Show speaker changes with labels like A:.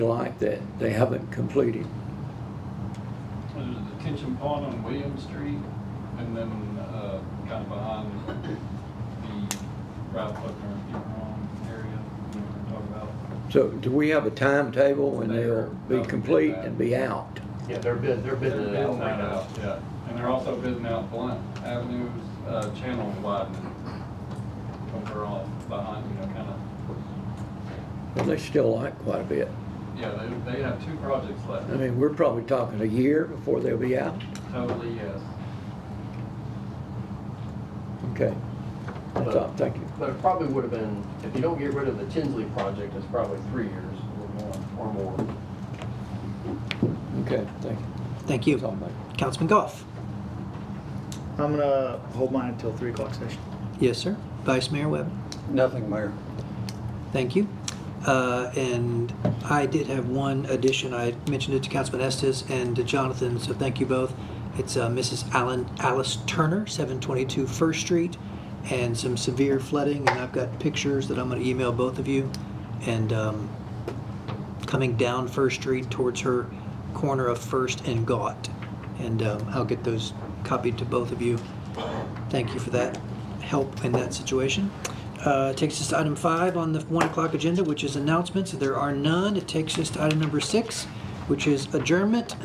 A: like that they haven't completed.
B: Well, There's a detention pond on William Street, and then, uh, kind of behind the Ralph Buckner, if you're wrong, area, we were talking about.
A: So do we have a timetable when they'll be
B: They're-
A: complete and be out?
C: Yeah, they're bid, they're
B: They're
C: bidding it out
B: bidding that
C: right now.
B: out, yeah, and they're also bidding out Blunt Avenue's, uh, channel widening overall behind, you know, kind of,
A: Well, they still like quite a bit.
B: yeah, they, they have two projects left,
A: I mean, we're probably talking a year before they'll be out.
B: totally, yes.
A: Okay. That's all, thank you.
C: But it probably would have been, if you don't get rid of the Tinsley project, it's probably three years or more, or more.
A: Okay, thank you.
D: Thank
A: That's all,
D: you.
A: mate.
D: Councilman Goff?
E: I'm gonna hold mine until three o'clock session.
D: Yes, sir. Vice Mayor Webb?
F: Nothing, Mayor.
D: Thank you. Uh, And I did have one addition. I mentioned it to Councilman Estes and to Jonathan, so thank you both. It's uh, Mrs. Allen, Alice Turner, 722 First Street, and some severe flooding, and I've got pictures that I'm going to email both of you. And um, coming down First Street towards her corner of First and Gaunt. And um, I'll get those copied to both of you. Thank you for that help in that situation. Uh, Takes us to item five on the one o'clock agenda, which is announcements. There are none. It takes us to item number six, which is adjournment.